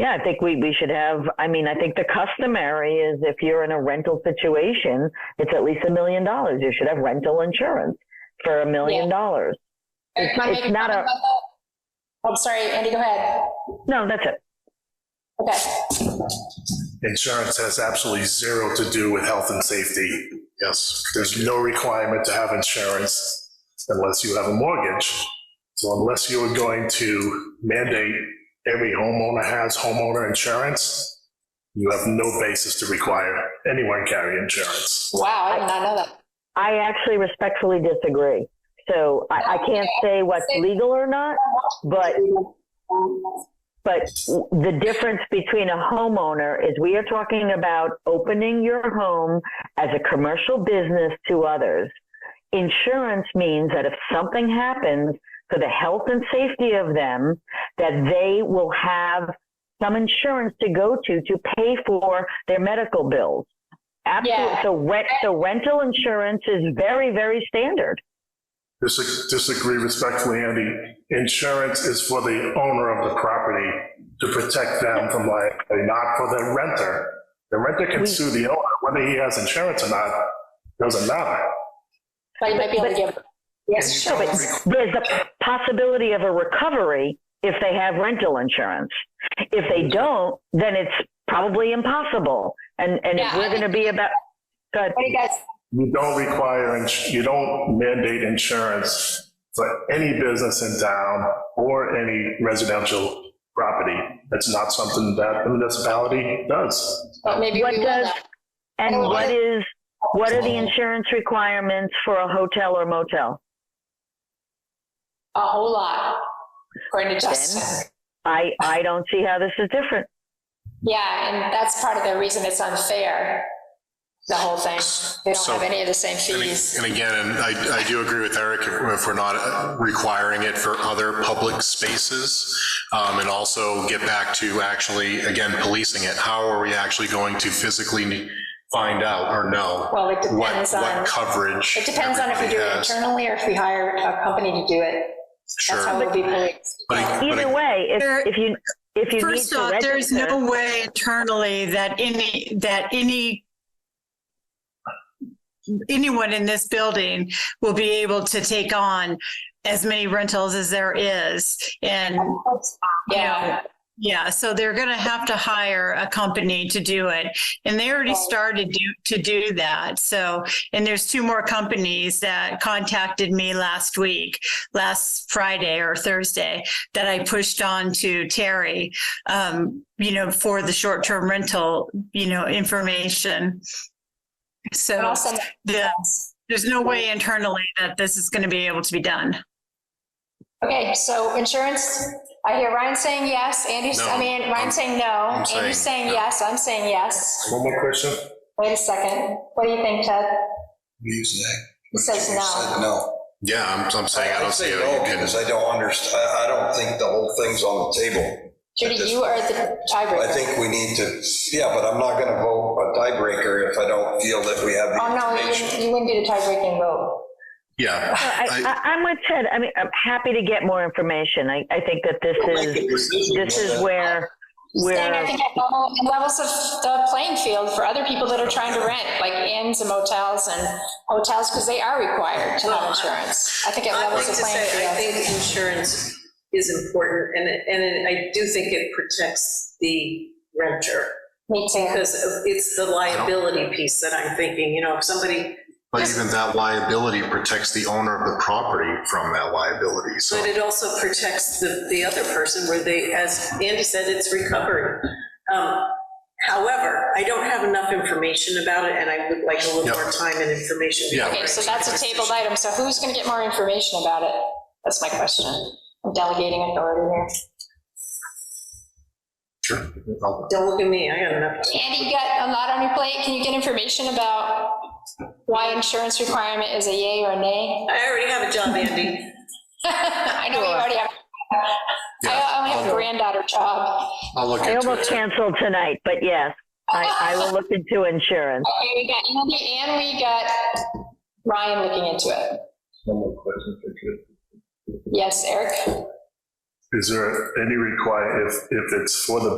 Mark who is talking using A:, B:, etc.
A: Yeah, I think we, we should have, I mean, I think the customary is if you're in a rental situation, it's at least a million dollars. You should have rental insurance for a million
B: Yeah.
A: dollars.
B: Can I make
A: it's not
B: comment
A: a-
B: about that? Oh, I'm sorry, Andy, go ahead.
A: No, that's it.
B: Okay,
C: Insurance has absolutely zero to do with health and safety. Yes. There's no requirement to have insurance unless you have a mortgage. So unless you are going to mandate every homeowner has homeowner insurance, you have no basis to require anyone carry insurance.
B: wow, I did not know that.
A: I actually respectfully disagree. So I, I can't say what's legal or not, but But the difference between a homeowner is we are talking about opening your home as a commercial business to others. Insurance means that if something happens for the health and safety of them, that they will have some insurance to go to to pay for their medical bills. Absolutely.
B: Yeah.
A: So rent, so rental insurance is very, very standard.
C: Dis- Disagree respectfully, Andy. Insurance is for the owner of the property to protect them from liability, not for the renter. The renter can
A: We-
C: sue the owner, whether he has insurance or not, doesn't matter.
B: But you might be able to give, yes,
C: And
B: sure,
C: you
B: but
C: don't
A: there's a possibility of a recovery if they have rental insurance. If they don't, then it's probably impossible. And, and if
B: Yeah, I
A: we're going to be about, good.
B: what do you guys,
C: You don't require, ins- you don't mandate insurance for any business in town or any residential property. That's not something that the municipality does.
B: but maybe
A: What
B: we will
A: does-
B: now.
A: And
B: Well,
A: what
B: I-
A: is, what are the insurance requirements for a hotel or motel?
B: A whole lot, according to Justin.
A: I, I don't see how this is different.
B: Yeah, and that's part of the reason it's unfair, the whole thing. They don't
D: So-
B: have any of the same
D: And
B: fees.
D: and again, and I, I do agree with Eric, if if we're not requiring it for other public spaces, um, and also get back to actually, again, policing it. How are we actually going to physically find out or know
B: Well, it
D: what,
B: depends on,
D: what coverage?
B: it depends on if we do
D: everybody
B: it
D: has?
B: internally or if we hire a company to do it. That's how
D: Sure.
B: we'll be policed.
D: But I- but
A: Either
D: I-
A: way, if, if you, if you need
E: First
A: to
E: off, there's
A: register,
E: no way internally that any, that any, anyone in this building will be able to take on as many rentals as there is. And,
B: Yeah,
E: yeah, so they're going to have to hire a company to do it. And they already
B: Right.
E: started do, to do that. So, and there's two more companies that contacted me last week, last Friday or Thursday, that I pushed on to Terry, um, you know, for the short-term rental, you know, information.
B: and
E: So
B: also,
E: the, there's no way internally that this is going to be able to be done.
B: okay, so insurance, I hear Ryan saying yes, Andy's, I
D: No,
B: mean,
D: I'm-
B: Ryan saying no,
D: I'm
B: Andy's
D: saying
B: saying
D: no.
B: yes, I'm saying yes.
C: One more question?
B: Wait a second, what do you think, Ted?
F: Use that.
B: He says
F: You
B: no.
F: said No.
D: Yeah, I'm, I'm saying I don't see
F: say
D: how
F: no
D: you can.
F: Because I don't understand, I don't think the whole thing's on the table.
B: Judy, you are the tiebreaker.
F: I think we need to, yeah, but I'm not gonna vote a tiebreaker if I don't feel that we have the
B: Oh, no, you
F: information.
B: wouldn't, you wouldn't do the tie-breaking vote.
D: Yeah,
A: I, I, I'm with Ted. I mean, I'm happy to get more information. I, I think that this
F: Make a
A: is,
F: decision,
A: this
F: but
A: is where,
B: Saying I
A: where.
B: think at level- levels of the playing field for other people that are trying to rent, like inns and motels and hotels, because they are required to have insurance. I think it
G: I'd like
B: levels
G: to
B: the playing
G: say, I
B: field.
G: think insurance is important, and, it- and it- I do think it protects the renter,
B: Me too.
G: because of- it's the liability piece that I'm thinking, you know, if somebody,
D: but even that liability protects the owner of the property from that liability, so.
G: but it also protects the, the other person, where they, as Andy said, it's recovery. Um, However, I don't have enough information about it, and I would like a little
D: Yep.
G: more time and information.
D: Yeah.
G: before I
B: Okay, so
G: make
B: that's
G: that
B: a tabled
G: decision.
B: item, so who's going to get more information about it? That's my question. I'm delegating authority here.
D: Sure. I'll-
G: Don't look at me, I got enough.
B: Andy, you got a lot on your plate. Can you get information about why insurance requirement is a yay or a nay?
G: I already have a job, Andy.
B: I know you
A: Sure.
B: already have, I only have a
D: I'll-
B: granddaughter job.
D: I'll look
A: I
D: into
A: almost
D: it.
A: canceled tonight, but yes, I, I will look into insurance.
B: Okay, we got Andy and we got Ryan looking into it.
C: One more question, if I could.
B: Yes, Eric?
C: Is there any require, if, if it's for the